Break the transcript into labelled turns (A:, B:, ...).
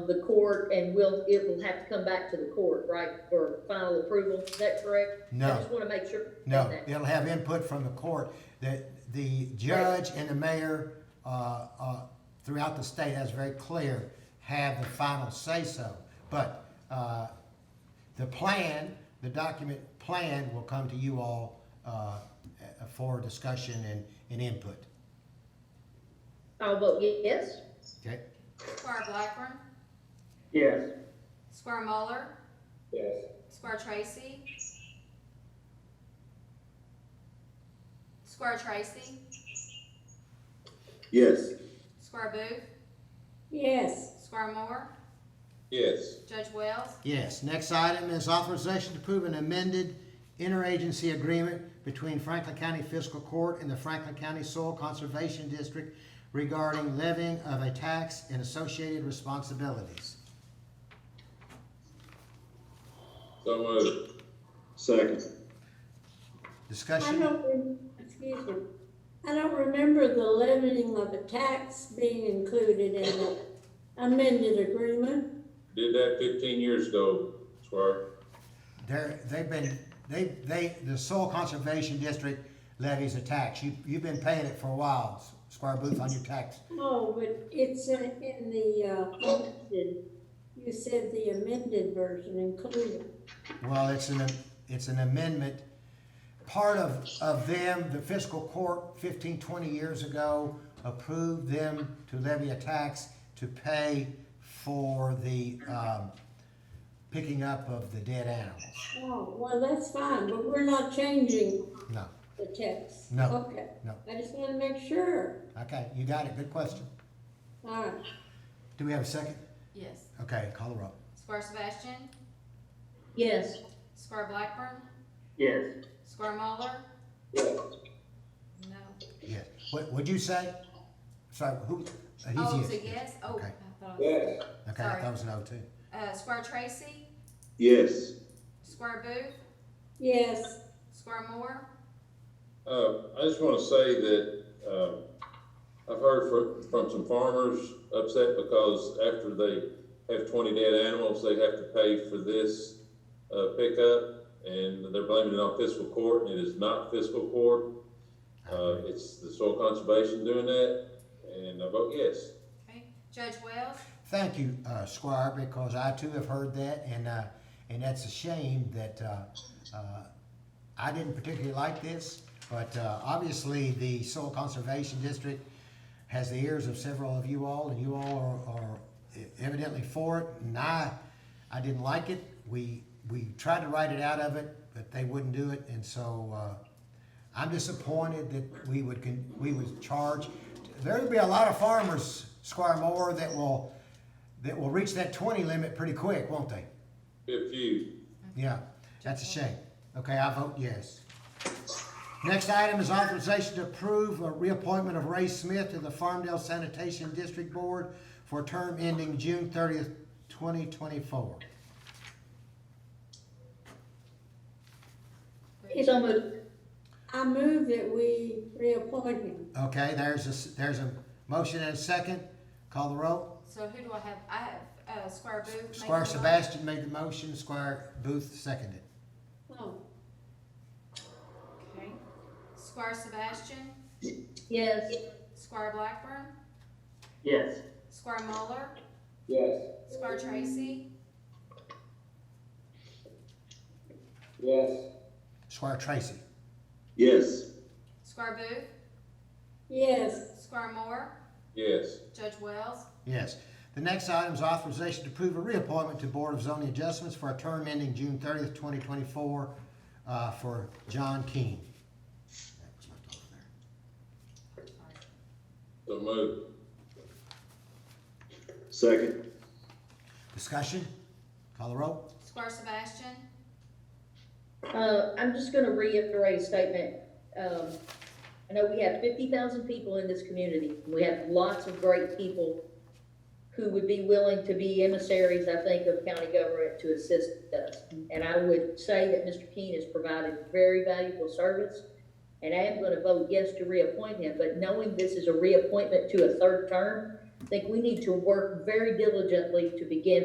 A: the court and will, it will have to come back to the court, right, for final approval, is that correct? I
B: No,
A: just wanna make sure.
B: no,
A: that-
B: it'll have input from the court, that the judge and the mayor, uh, uh, throughout the state, that's very clear, have the final say-so. But, uh, the plan, the document plan will come to you all, uh, for discussion and, and input,
A: I'll vote yes.
B: okay?
C: Squire Blackburn,
D: Yes.
C: Squire Muller,
D: Yes.
C: Squire Tracy. Squire Tracy,
D: Yes.
C: Squire Booth,
E: yes,
C: Squire Moore,
D: Yes.
C: Judge Wells,
B: Yes, next item is authorization to approve an amended interagency agreement between Franklin County Fiscal Court and the Franklin County Soil Conservation District regarding levying of a tax and associated responsibilities.
D: So
F: uh,
D: moved. Second.
E: I
B: Discussion?
E: don't, rem- excuse me, I don't remember the levying of a tax being included in the amended agreement.
D: Did that fifteen years ago, Squire.
B: They're, they've been, they, they, the Soil Conservation District levies a tax. You, you've been paying it for a while, Squire Booth, on your tax.
E: Oh, but it's in, in the, uh, amended, you said the amended version included.
B: Well, it's an, it's an amendment. Part of, of them, the fiscal court 15, 20 years ago approved them to levy a tax to pay for the, um, picking up of the dead animals.
E: Oh, well, that's fine, but we're not changing
B: No,
E: the text.
B: No,
E: Okay.
B: no.
E: I just wanna make sure.
B: okay, you got it, good question.
E: All right,
B: Do we have a second?
C: yes,
B: Okay, call the roll.
C: Squire Sebastian,
A: Yes,
C: Squire Blackburn,
D: Yes.
C: Squire Muller,
D: Yes.
C: no.
B: Yes. What, what'd you say? Sorry, who? uh, he's
C: Oh, it's a
B: yes.
C: yes, oh, I
B: Okay.
C: thought it was.
D: Yes.
B: Okay, I
C: Sorry.
B: thought it was an O two.
C: Uh, Squire Tracy,
D: Yes.
C: Squire Booth,
E: yes,
C: Squire Moore,
F: Uh, I just want to say that, um, I've heard from, from some farmers upset because after they have twenty dead animals, they have to pay for this, uh, pickup, and they're blaming it on fiscal court, and it is not fiscal court. Uh, it's the soil conservation doing that, and I vote yes.
C: okay, Judge Wells,
B: Thank you, uh, Squire, because I too have heard that, and, uh, and that's a shame that, uh, uh, I didn't particularly like this, but, uh, obviously, the Soil Conservation District has the ears of several of you all, and you all are, are evidently for it, and I, I didn't like it. We, we tried to write it out of it, but they wouldn't do it, and so, uh, I'm disappointed that we would, con- we would charge. There'll be a lot of farmers, Squire Moore, that will, that will reach that twenty limit pretty quick, won't they?
F: Good few.
B: Yeah, that's a shame. Okay, I vote yes. Next item is authorization to approve a reappointment of Ray Smith to the Farmdale Sanitation District Board for a term ending June thirtieth, twenty twenty-four.
A: so moved.
E: I move that we reappoint him.
B: Okay, there's a, s- there's a motion and a second. Call the roll.
C: so who do I have, I have, uh, Squire Booth. making
B: Squire
C: the motion.
B: Sebastian made the motion, Squire Booth seconded.
E: Oh,
C: Okay. Squire Sebastian,
A: yes,
C: Squire Blackburn,
D: Yes.
C: Squire Muller,
D: Yes.
C: Squire Tracy,
D: Yes.
B: Squire Tracy,
D: Yes.
C: Squire Booth,
E: yes,
C: Squire Moore,
F: Yes.
C: Judge Wells,
B: yes. The next item is authorization to approve a reappointment to Board of Zoning Adjustments for a term ending June thirtieth, twenty twenty-four, uh, for John Keane. That was left over there.
F: So moved.
D: Second.
B: Discussion? Call the roll?
C: Squire Sebastian,
A: uh, I'm just gonna reiterate a statement. Um, I know we have fifty thousand people in this community, we have lots of great people who would be willing to be emissaries, I think, of county government to assist us. And I would say that Mr. Keene has provided very valuable service, and I am gonna vote yes to reappoint him, but knowing this is a reappointment to a third term, I think we need to work very diligently to begin